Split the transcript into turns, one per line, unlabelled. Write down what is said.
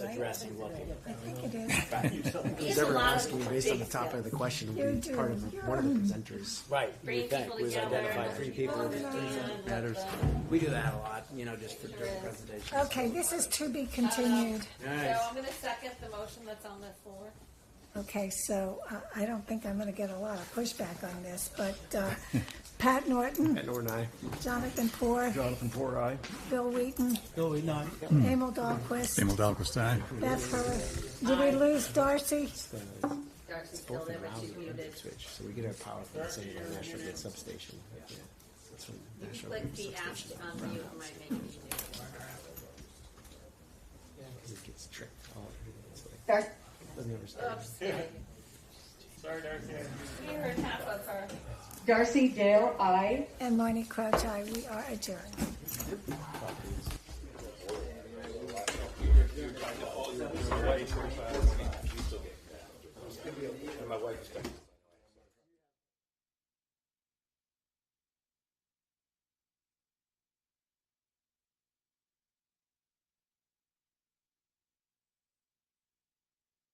you're asking what the
I think it is.
Who's ever asking me based on the topic of the question
You
will be
do.
part of one of the presenters.
Right, you
Bring
would think,
people
we've
together.
identified three people,
And-
Matters.
we do that a lot, you know, just for during presentations.
Okay, this is to be continued.
So
Nice.
I'm gonna second the motion that's on the floor.
Okay, so uh, I- I don't think I'm going to get a lot of pushback on this, but uh, Pat Norton,
Matt Norton, aye.
Jonathan Poor,
Jonathan Poor, aye.
Bill Wheaton,
Bill Wheaton, aye.
Emil Dahlquist,
Emil Dahlquist, aye.
Beth Hurst. Did we lose Darcy?
Darcy's still there, but she's muted.
Switch, so we get our power from the same National Grid substation. Yeah. That's from National
Click
Grid
the ash
substation.
on mute, it might make me do it.
Because it gets tricked all over. It's like,
Darcy.
doesn't understand.
Oops. Sorry, Darcy. We heard half of her.
Darcy Dale, I.
And Marnie Crouch, I. We are adjourned.
My wife is back.